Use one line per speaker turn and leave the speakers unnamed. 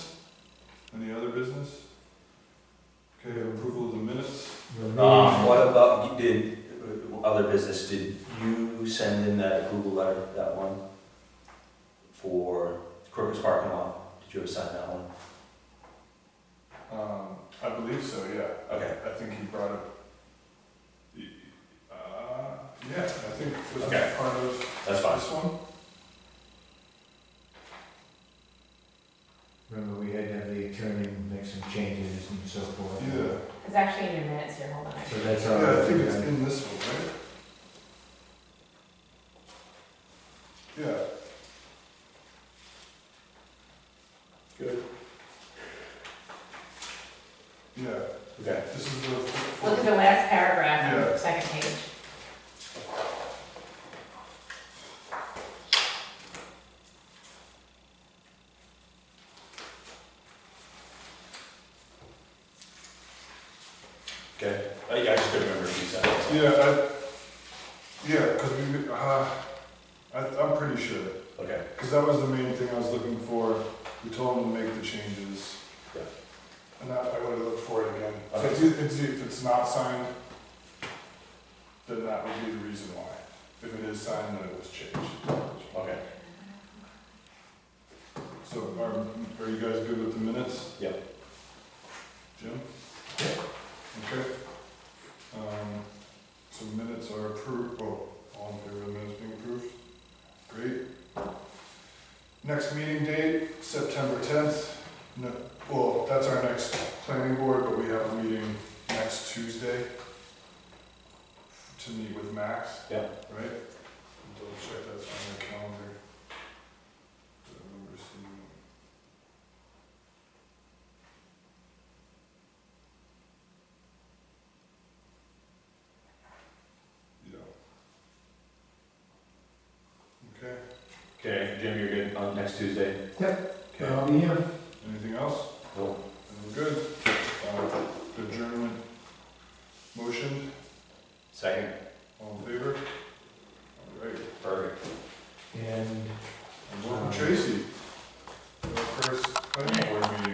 Any other business? Okay, approval of the minutes? Ah,
Um, what about, you did, uh, other business, did you send in that approval letter, that one? For Crocus parking lot, did you ever sign that one?
Um, I believe so, yeah.
Okay,
I think he brought up, uh, yeah, I think was
Okay.
that part of
that's fine.
this one?
Remember, we had to have the attorney make some changes and so forth.
Yeah,
It's actually in your minutes here, hold on.
So that's all.
yeah, I think it's in this one, right? Yeah. Good. Yeah,
Okay.
this is the.
Look at the last paragraph on the
Yeah.
second page.
Okay, I, I just couldn't remember if you signed it.
Yeah, I, yeah, because we, uh, I, I'm pretty sure,
Okay,
because that was the main thing I was looking for. We told them to make the changes.
Yeah.
And I, I would have looked for it again. If
Okay.
it's, if it's- if it's not signed, then that would be the reason why. If it is signed, then it was changed.
okay,
So are, are you guys good with the minutes?
Yeah.
Jim? Okay. Um, so minutes are approved, well, all in favor of the minutes being approved? Great. Next meeting date, September tenth. No, well, that's our next planning board, but we have a meeting next Tuesday to meet with Max.
Yeah.
Right? Double check that's on the calendar. Do I remember seeing it? Yeah. Okay,
okay, Jim, you're good on next Tuesday? Okay,
I'll be here.
anything else?
cool.
Then We're good. Uh, Adjournment motion,
Second?